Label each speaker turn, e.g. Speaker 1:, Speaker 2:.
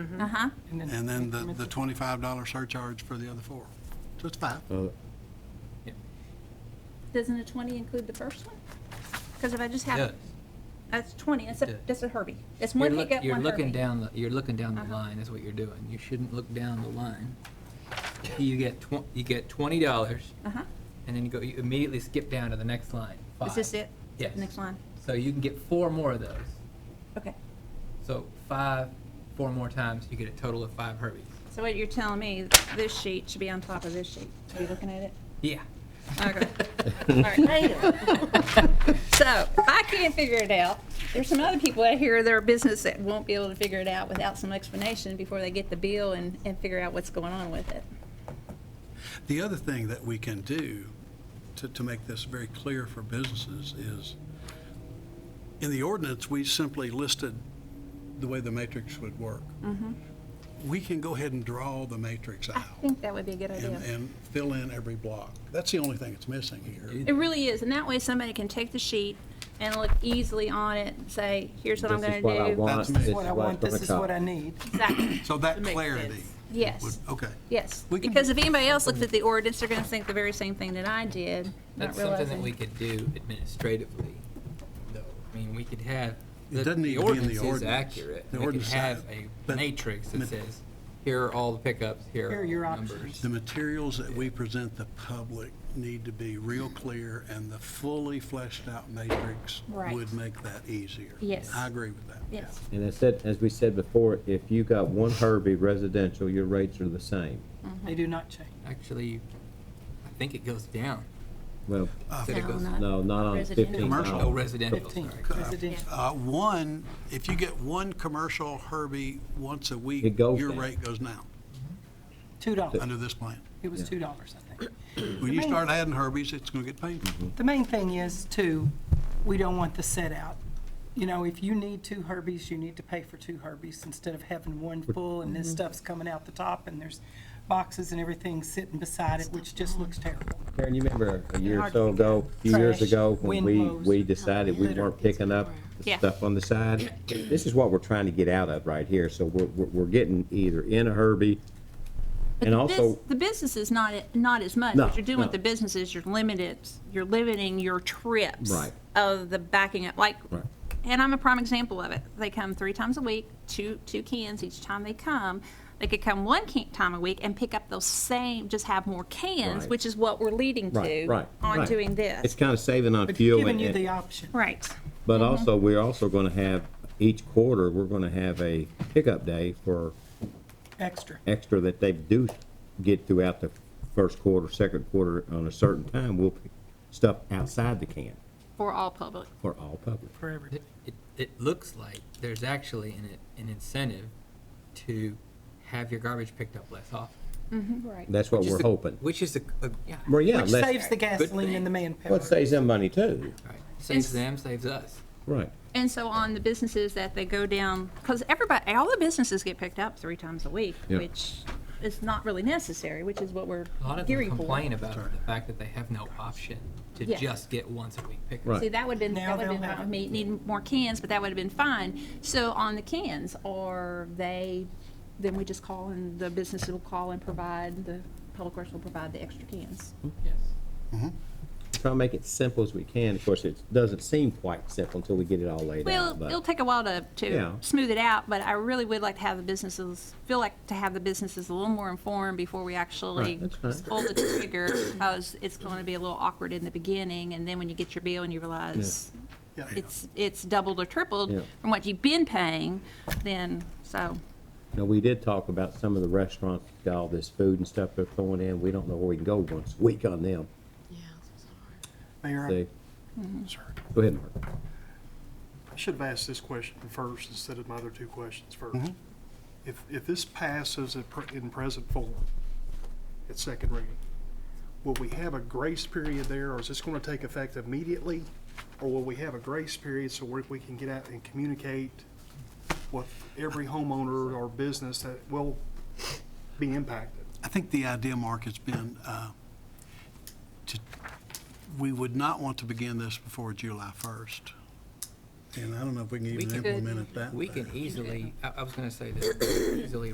Speaker 1: Uh-huh.
Speaker 2: and then the, the twenty-five dollar surcharge for the other four. So it's five.
Speaker 3: Uh,
Speaker 1: Doesn't a twenty include the first one? Because if I just
Speaker 4: Yeah.
Speaker 1: have, that's twenty, that's a,
Speaker 4: Yeah.
Speaker 1: that's a Herbie. It's
Speaker 4: You're
Speaker 1: one
Speaker 4: loo-
Speaker 1: hiccup,
Speaker 4: You're
Speaker 1: one
Speaker 4: looking
Speaker 1: Herbie.
Speaker 4: down, the you're looking down the
Speaker 1: Uh-huh.
Speaker 4: line, is what you're doing. You shouldn't look down the line. You get tw- you get twenty dollars,
Speaker 1: Uh-huh.
Speaker 4: and then you go, you immediately skip down to the next line, five.
Speaker 1: Is this it?
Speaker 4: Yes.
Speaker 1: Next line?
Speaker 4: So you can get four more of those.
Speaker 1: Okay.
Speaker 4: So five, four more times, you get a total of five Herbies.
Speaker 1: So what you're telling me, this sheet should be on top of this sheet. Are you looking at it?
Speaker 4: Yeah.
Speaker 1: Okay. All right. So if I can't figure it out, there's some other people out here, their business that won't be able to figure it out without some explanation before they get the bill and, and figure out what's going on with it.
Speaker 2: The other thing that we can do to, to make this very clear for businesses is, in the ordinance, we simply listed the way the matrix would work. We can go ahead and draw the matrix
Speaker 1: I
Speaker 2: out
Speaker 1: think that would be a good idea.
Speaker 2: and, and fill in every block. That's the only thing that's missing here.
Speaker 1: It really is, and that way somebody can take the sheet and look easily on it and say, here's what I'm
Speaker 3: This
Speaker 1: gonna
Speaker 3: is what I
Speaker 1: do.
Speaker 3: want.
Speaker 2: That's
Speaker 3: this
Speaker 2: me.
Speaker 3: is
Speaker 5: what I
Speaker 3: what
Speaker 5: want, this is
Speaker 3: gonna
Speaker 5: what I
Speaker 3: cut.
Speaker 5: need.
Speaker 1: Mm-hmm. Exactly.
Speaker 2: So that
Speaker 5: makes
Speaker 2: clarity
Speaker 5: sense.
Speaker 2: would,
Speaker 1: Yes,
Speaker 2: okay.
Speaker 1: yes.
Speaker 2: We can-
Speaker 1: Because if anybody else looks at the ordinance, they're gonna think the very same thing that I did, not
Speaker 4: That's something that we
Speaker 1: realizing.
Speaker 4: could do administratively, though. I mean, we could have.
Speaker 2: It
Speaker 4: the-
Speaker 2: doesn't need to be in the
Speaker 4: is
Speaker 2: ordinance.
Speaker 4: accurate.
Speaker 2: The
Speaker 4: We could
Speaker 2: ordinance
Speaker 4: have
Speaker 2: side,
Speaker 4: a
Speaker 2: but-
Speaker 4: matrix
Speaker 2: but-
Speaker 4: that says, here are all the pickups, here
Speaker 5: Here
Speaker 4: are
Speaker 5: are your
Speaker 4: all the
Speaker 5: options.
Speaker 4: numbers.
Speaker 2: The materials that we present the public need to be real clear, and the fully fleshed out matrix
Speaker 1: Right.
Speaker 2: would make that easier.
Speaker 1: Yes.
Speaker 2: I agree with that.
Speaker 1: Yes,
Speaker 3: And as said, as we said before, if you got one Herbie residential, your rates are the same.
Speaker 5: They do not change.
Speaker 4: Actually, I think it goes down.
Speaker 3: Well,
Speaker 2: Uh,
Speaker 4: Said it
Speaker 1: No,
Speaker 4: goes-
Speaker 1: not-
Speaker 3: no, not on
Speaker 1: Residential.
Speaker 3: fifteen
Speaker 2: Commercial.
Speaker 4: Oh,
Speaker 3: dollars.
Speaker 4: residential, sorry.
Speaker 5: Fifteen, residential.
Speaker 2: Uh, One, if you get one commercial Herbie once a week,
Speaker 3: It goes
Speaker 2: your
Speaker 3: down.
Speaker 2: rate goes down
Speaker 5: Two dollars.
Speaker 2: under this plan.
Speaker 5: It was two dollars, I think.
Speaker 2: When you start adding Herbies, it's going to get painful.
Speaker 3: Mm-hmm.
Speaker 5: The main thing is, too, we don't want the set out. You know, if you need two Herbies, you need to pay for two Herbies instead of having one full and this stuff's coming out the top and there's boxes and everything sitting beside it, which just looks terrible.
Speaker 3: Karen, you remember a year or
Speaker 5: hard
Speaker 3: so
Speaker 5: to figure
Speaker 3: ago,
Speaker 5: out.
Speaker 3: a few years
Speaker 5: Trash,
Speaker 3: ago, when
Speaker 5: wind
Speaker 3: we,
Speaker 5: blows,
Speaker 3: we decided we
Speaker 5: litter.
Speaker 3: weren't picking up the
Speaker 1: Yeah.
Speaker 3: stuff on the side? This is what we're trying to get out of right here, so we're, we're, we're getting either in a Herbie,
Speaker 1: But
Speaker 3: and
Speaker 1: the bus-
Speaker 3: also,
Speaker 1: The business is not, not as much.
Speaker 3: No,
Speaker 1: What you're doing with
Speaker 3: no.
Speaker 1: the business is you're limited, you're limiting your trips.
Speaker 3: Right.
Speaker 1: Of the backing up, like,
Speaker 3: Right.
Speaker 1: and I'm a prime example of it. They come three times a week, two, two cans each time they come. They could come one can, time a week and pick up those same, just have more cans,
Speaker 3: Right.
Speaker 1: which is what we're leading
Speaker 3: right,
Speaker 1: to
Speaker 3: right.
Speaker 1: on
Speaker 3: right.
Speaker 1: doing
Speaker 3: It's
Speaker 1: this.
Speaker 3: kind of saving on
Speaker 5: But
Speaker 3: fuel.
Speaker 5: giving
Speaker 3: and-
Speaker 5: you
Speaker 3: and-
Speaker 5: the option.
Speaker 1: Right,
Speaker 3: But also, we're also going to have, each quarter, we're going to have a pickup day for
Speaker 5: Extra.
Speaker 3: extra that they do get throughout the first quarter, second quarter, on a certain time, we'll pick stuff outside the can
Speaker 1: for all public.
Speaker 3: for all public.
Speaker 5: for everybody.
Speaker 4: It, it, it looks like there's actually an, an incentive to have your garbage picked up less often.
Speaker 1: Right.
Speaker 3: That's what
Speaker 4: Which is
Speaker 3: we're
Speaker 4: the-
Speaker 3: hoping.
Speaker 4: Which is the, uh, yeah,
Speaker 3: Well, yeah,
Speaker 5: Which
Speaker 3: let's,
Speaker 5: saves the gasoline and the manpower.
Speaker 3: let's save some money too.
Speaker 4: right. Saves them, saves us.
Speaker 3: Right.
Speaker 1: And so on the businesses that they go down, because everybody, all the businesses get picked up three times a week,
Speaker 3: Yeah.
Speaker 1: which is not really necessary, which is what we're
Speaker 4: A lot of them
Speaker 1: gearing for.
Speaker 4: complain about the fact that they have no option to
Speaker 1: Yeah.
Speaker 4: just get once a week pickups.
Speaker 3: Right.
Speaker 1: See, that would have been,
Speaker 5: Now
Speaker 1: that would have
Speaker 5: they'll
Speaker 1: been fine
Speaker 5: have
Speaker 1: with me, need more cans, but that would have been fine. So on the cans, or they, then we just call and the businesses will call and provide, the public works will provide the extra cans.
Speaker 4: Yes.
Speaker 3: Try to make it simple as we can. Of course, it doesn't seem quite simple until we get it all laid
Speaker 1: Well,
Speaker 3: out.
Speaker 1: it'll
Speaker 3: but-
Speaker 1: take a while to,
Speaker 3: Yeah.
Speaker 1: to smooth it out, but I really would like to have the businesses, feel like to have the businesses a little more informed before we actually
Speaker 3: Right, that's fine.
Speaker 1: pull the trigger, because it's going to be a little awkward in the beginning, and then when you get your bill and you realize
Speaker 2: Yeah.
Speaker 1: it's, it's doubled or
Speaker 3: Yeah.
Speaker 1: tripled from what you've been paying, then, so,
Speaker 3: Now, we did talk about some of the restaurants, got all this food and stuff they're throwing in. We don't know where we can go once a week on them.
Speaker 6: Mayor, I
Speaker 3: They- Go ahead, Mark.
Speaker 6: should have asked this question first instead of my other two questions first. If, if this passes at pre- in present form, at second reading, will we have a grace period there, or is this going to take effect immediately? Or will we have a grace period so we we can get out and communicate with every homeowner or business that will be impacted?
Speaker 2: I think the idea, Mark, has been uh, to, we would not want to begin this before July 1st. And I don't know if we can
Speaker 4: We
Speaker 2: even
Speaker 4: can-
Speaker 2: implement it that way.
Speaker 4: We can easily, I, I was gonna say that, we can easily